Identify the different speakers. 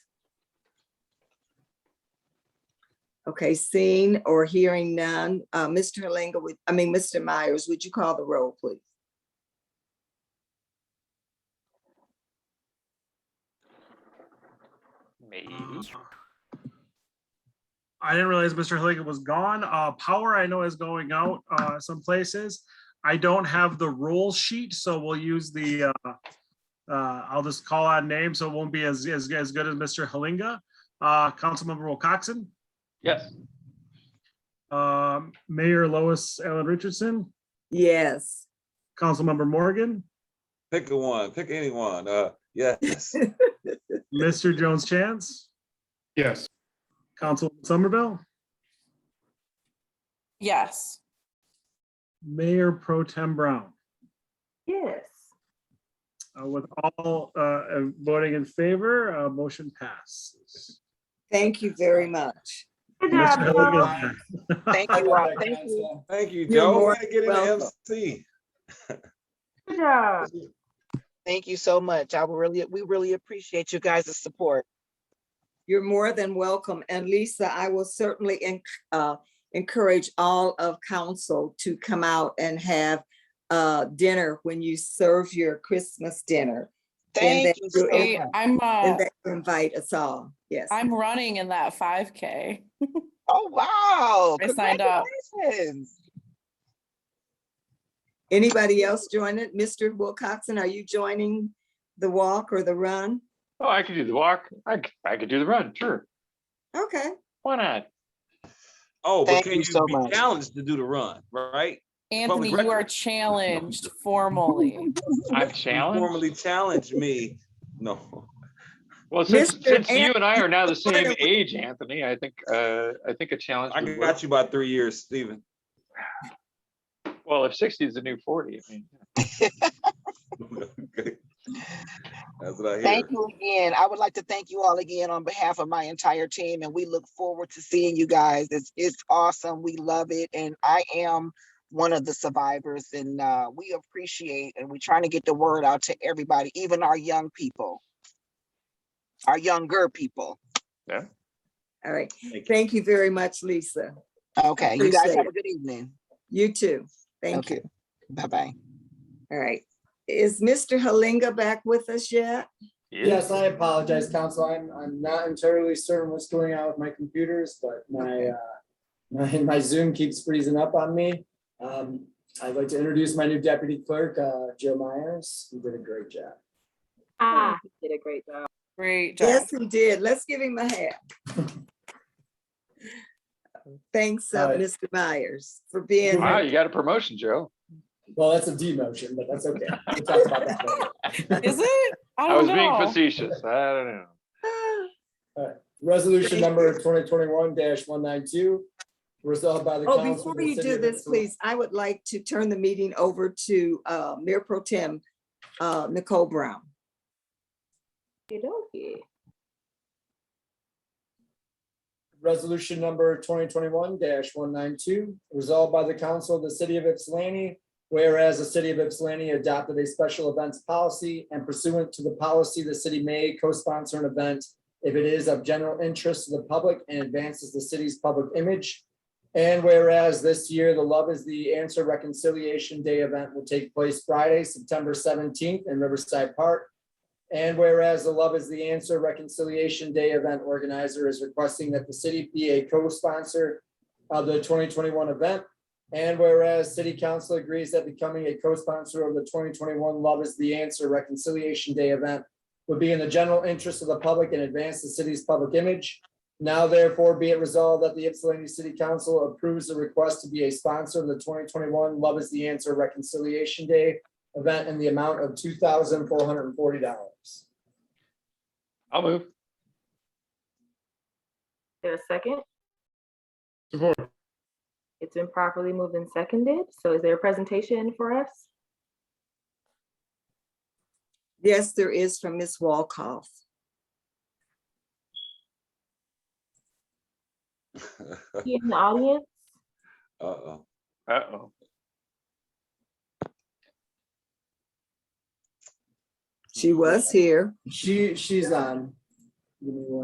Speaker 1: Okay, seeing or hearing none, uh, Mr. Halinga, would- I mean, Mr. Myers, would you call the roll, please?
Speaker 2: Me.
Speaker 3: Mm-hmm.
Speaker 4: I didn't realize Mr. Haliga was gone. Uh, power I know is going out, uh, some places. I don't have the roll sheet, so we'll use the, uh, uh, I'll just call on names, so it won't be as, as, as good as Mr. Halinga. Uh, Councilmember Will Coxon,
Speaker 2: Yes.
Speaker 4: um, Mayor Lois Allen Richardson,
Speaker 1: Yes.
Speaker 4: Councilmember Morgan,
Speaker 3: Pick a one, pick anyone. Uh, yes,
Speaker 4: Mr. Jones Chance,
Speaker 5: Yes.
Speaker 4: Councilman Somerville,
Speaker 6: Yes.
Speaker 4: Mayor Pro Tem Brown.
Speaker 6: Yes.
Speaker 4: Uh, With all uh, voting in favor, uh, motion passes.
Speaker 1: Thank you very much.
Speaker 6: Good
Speaker 4: Mr.
Speaker 6: job, Paul.
Speaker 4: Haliga.
Speaker 6: Thank you, Rob. Thank you.
Speaker 3: thank you,
Speaker 1: You're
Speaker 3: Joe.
Speaker 1: more
Speaker 3: Way to Get
Speaker 1: welcome.
Speaker 3: into MC.
Speaker 6: Good job.
Speaker 7: Thank you so much. I will really, we really appreciate you guys' support.
Speaker 1: You're more than welcome. And Lisa, I will certainly en- uh, encourage all of council to come out and have uh, dinner when you serve your Christmas dinner.
Speaker 7: Thank
Speaker 1: that
Speaker 7: you
Speaker 1: you
Speaker 7: so
Speaker 1: in-
Speaker 7: much.
Speaker 6: Hey, I'm, uh,
Speaker 1: And that you invite us all. Yes.
Speaker 6: I'm running in that five K.
Speaker 7: Oh, wow.
Speaker 6: I signed up.
Speaker 7: Congratulations.
Speaker 1: Anybody else join it? Mr. Wilcoxen, are you joining the walk or the run?
Speaker 2: Oh, I could do the walk. I, c- I could do the run, sure.
Speaker 1: Okay.
Speaker 2: Why not?
Speaker 3: Oh, but
Speaker 7: Thank
Speaker 3: can
Speaker 7: you
Speaker 3: you
Speaker 7: so
Speaker 3: be
Speaker 7: much.
Speaker 3: challenged to do the run, right?
Speaker 6: Anthony,
Speaker 3: record?
Speaker 6: you are challenged formally.
Speaker 2: I'm
Speaker 3: You
Speaker 2: challenged.
Speaker 3: Formally challenge me. No,
Speaker 2: Well, since,
Speaker 1: Mr.
Speaker 2: since you and I are now the
Speaker 1: Anthony-
Speaker 2: same age, Anthony, I think, uh, I think a challenge.
Speaker 3: I
Speaker 2: would
Speaker 3: got you by three years, Stephen.
Speaker 2: work. Well, if sixty is the new forty, I mean,
Speaker 3: Okay. That's what I hear.
Speaker 7: Thank you again. I would like to thank you all again on behalf of my entire team and we look forward to seeing you guys. It's, it's awesome. We love it. And I am one of the survivors and, uh, we appreciate and we're trying to get the word out to everybody, even our young people. Our younger people.
Speaker 1: All right.
Speaker 3: Thank you.
Speaker 1: Thank you very much, Lisa.
Speaker 7: Okay, you guys
Speaker 1: Appreciate
Speaker 7: have a good evening.
Speaker 1: You too. Thank you.
Speaker 7: Okay. Bye-bye.
Speaker 1: All right. Is Mr. Halinga back with us yet?
Speaker 2: yeah,
Speaker 8: Yes, I apologize, council. I'm, I'm not entirely certain what's going on with my computers, but my, uh, my, my Zoom keeps freezing up on me. Um, I'd like to introduce my new deputy clerk, uh, Joe Myers. He did a great job.
Speaker 9: Ah,
Speaker 6: Great job.
Speaker 1: Yes, he did. Let's give him a hand. Thanks, uh,
Speaker 8: All right.
Speaker 1: Mr. Myers, for being.
Speaker 2: wow,
Speaker 1: here.
Speaker 2: you got a promotion, Joe.
Speaker 8: Well, that's a demotion, but that's okay. We'll talk about that later.
Speaker 6: Is it? I
Speaker 2: I
Speaker 6: don't
Speaker 2: was being
Speaker 6: know.
Speaker 2: facetious. I don't know.
Speaker 1: Ah,
Speaker 8: Resolution number twenty twenty-one one nine two, resolved by the council.
Speaker 1: Oh,
Speaker 8: of
Speaker 1: before
Speaker 8: the
Speaker 1: you
Speaker 8: City
Speaker 1: do
Speaker 8: of
Speaker 1: this,
Speaker 8: Liverpool-
Speaker 1: please, I would like to turn the meeting over to uh, Mayor Pro Tem uh, Nicole Brown.
Speaker 9: you don't get.
Speaker 8: Resolution number twenty twenty-one one nine two, resolved by the council of the city of Ypsilanti. Whereas the city of Ypsilanti adopted a special events policy and pursuant to the policy, the city may co-sponsor an event if it is of general interest to the public and advances the city's public image. And whereas this year, the Love is the Answer Reconciliation Day event will take place Friday, September seventeenth in Riverside Park. And whereas the Love is the Answer Reconciliation Day event organizer is requesting that the city be a co-sponsor of the twenty twenty-one event. And whereas city council agrees that becoming a co-sponsor of the twenty twenty-one Love is the Answer Reconciliation Day event would be in the general interest of the public and advance the city's public image. Now therefore be it resolved that the Ypsilanti City Council approves the request to be a sponsor of the twenty twenty-one Love is the Answer Reconciliation Day event in the amount of two thousand four hundred and forty dollars.
Speaker 2: I'll move.
Speaker 9: There a second?
Speaker 5: Support.
Speaker 9: It's been properly moved and seconded. So is there a presentation for us?
Speaker 1: Yes, there is from Ms. Walkoff.
Speaker 9: Here in the audience?
Speaker 3: Uh-oh.
Speaker 2: Uh-oh.
Speaker 1: She was here.
Speaker 8: She, she's on. Give me one